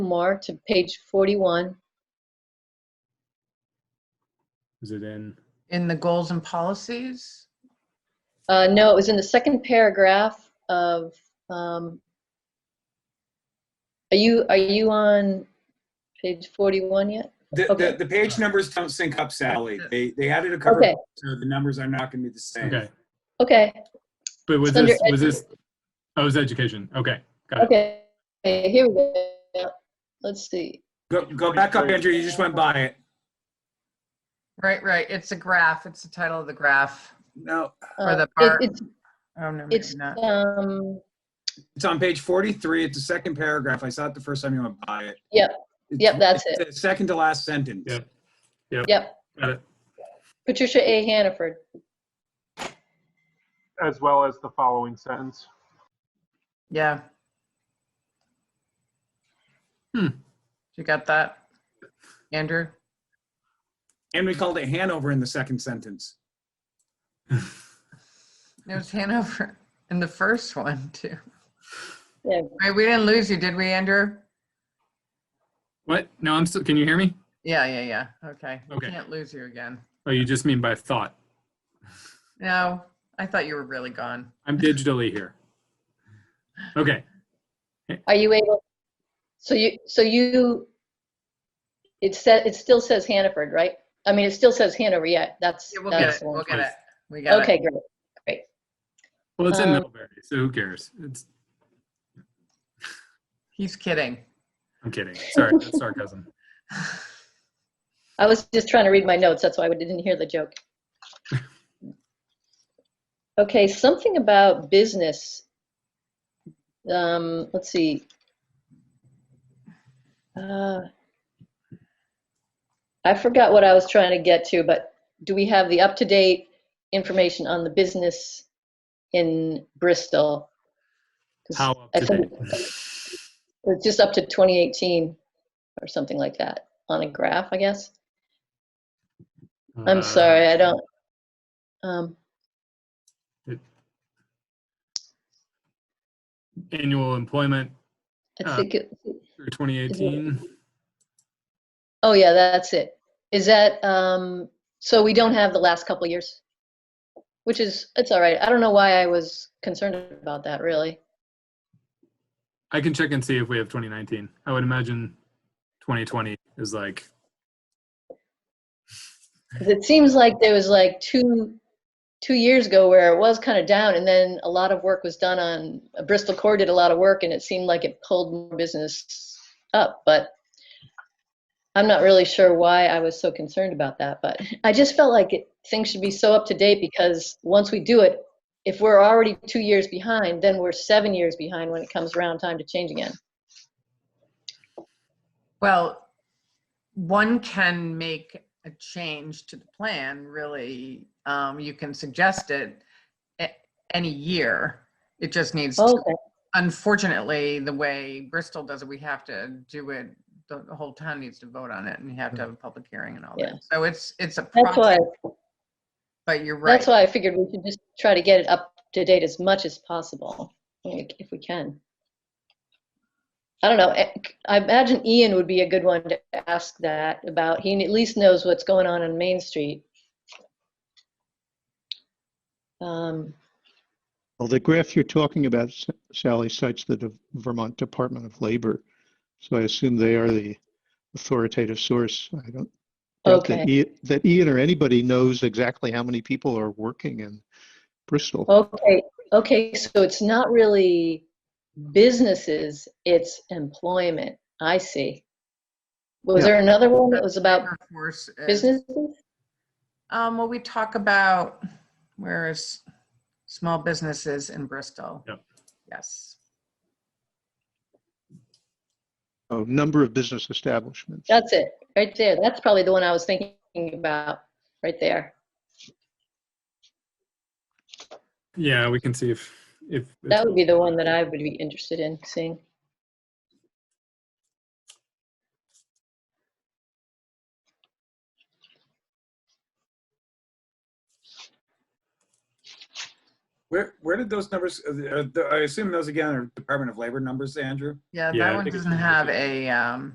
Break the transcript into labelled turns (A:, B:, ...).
A: more to page 41.
B: Is it in?
C: in the goals and policies?
A: Uh, no, it was in the second paragraph of, um, are you, are you on page 41 yet?
D: The,
A: Okay.
D: the, the page numbers don't sync up, Sally. They, they added a cover,
A: Okay.
D: so the numbers are not gonna be the same.
B: Okay,
A: Okay,
B: but was
A: It's under
B: this, was this, oh, it was education, okay, got it.
A: okay, Okay, here we go. Let's see.
D: Go, go back up, Andrew, you just went by it.
C: Right, right. It's a graph. It's the title of the graph.
D: No,
C: Or
A: Uh,
C: the
A: it-
C: part-
A: It's,
C: Oh, no, maybe
A: it's,
C: not.
A: um,
D: it's on page 43, it's the second paragraph. I saw it the first time you went by it.
A: Yep.
D: It's-
A: Yep, that's
D: it's
A: it.
D: the Second to last sentence.
B: Yep.
A: yep,
B: Got it.
A: Patricia A. Hannaford.
E: as well as the following sentence.
C: Yeah.
B: Hmm.
C: You got that? Andrew?
D: And we called it Hanover in the second sentence.
C: It was Hanover in the first one, too.
A: Yeah.
C: Wait, we didn't lose you, did we, Andrew?
B: What? No, I'm still, can you hear me?
C: Yeah, yeah, yeah. Okay. We
B: Okay.
C: can't lose you again.
B: Oh, you just mean by thought.
C: No, I thought you were really gone.
B: I'm digitally here. Okay,
A: Are you able, so you, so you, it said, it still says Hannaford, right? I mean, it still says Hanover, yeah, that's.
C: Yeah, we'll get
A: that's
C: it.
A: the one.
C: We'll get it. We got
A: Okay,
C: it.
A: great.
B: well, it's in
A: Um,
B: Middlebury, so who cares? It's,
C: He's kidding.
B: I'm kidding, sorry, that's sarcasm.
A: I was just trying to read my notes, that's why I didn't hear the joke. Okay, something about business. Um, let's see. Uh, I forgot what I was trying to get to, but do we have the up-to-date information on the business in Bristol? 'Cause
B: How up
A: I
B: to
A: think
B: date?
A: It's just up to 2018 or something like that on a graph, I guess.
B: uh,
A: I'm sorry, I don't. Um,
B: Annual employment
A: I
B: Uh,
A: think, it-
B: through 2018.
A: oh yeah, that's it. Is that, um, so we don't have the last couple years? Which is, it's all right. I don't know why I was concerned about that, really.
B: I can check and see if we have 2019. I would imagine 2020 is like,
A: 'Cause it seems like there was like two, two years ago where it was kind of down and then a lot of work was done on, uh, Bristol Core did a lot of work and it seemed like it pulled more business up, but I'm not really sure why I was so concerned about that, but I just felt like it, things should be so up to date because once we do it, if we're already two years behind, then we're seven years behind when it comes around time to change again.
C: Well, one can make a change to the plan, really. Um, you can suggest it a- any year. It just needs, to-
A: Okay.
C: unfortunately, the way Bristol does it, we have to do it, the the whole town needs to vote on it and you have to have a public hearing and all
A: Yeah.
C: that. So it's, it's a
A: That's why,
C: process, but you're right.
A: that's why I figured we should just try to get it up to date as much as possible, like, if we can. I don't know. eh, I imagine Ian would be a good one to ask that about. He at least knows what's going on on Main Street. Um,
F: Well, the graph you're talking about, S- Sally, cites the De- Vermont Department of Labor. So I assume they are the authoritative source. I don't doubt that
A: Okay.
F: Ian- that Ian or anybody knows exactly how many people are working in Bristol.
A: Oh. Okay, okay, so it's not really businesses, it's employment. I see. Was
F: Yeah.
A: there another one that was about
C: Labor force is-
A: businesses?
C: Um, well, we talk about where is small businesses in Bristol.
B: Yep.
C: Yes.
F: Oh, number of business establishments.
A: That's it, right there. That's probably the one I was thinking about, right there.
B: yeah, we can see if, if. it's-
A: That would be the one that I would be interested in seeing.
D: Where, where did those numbers, uh, the- uh, the- I assume those again are Department of Labor numbers, Andrew?
C: Yeah,
B: Yeah, I
C: that one
B: think it's
C: doesn't
B: in
C: have a, um,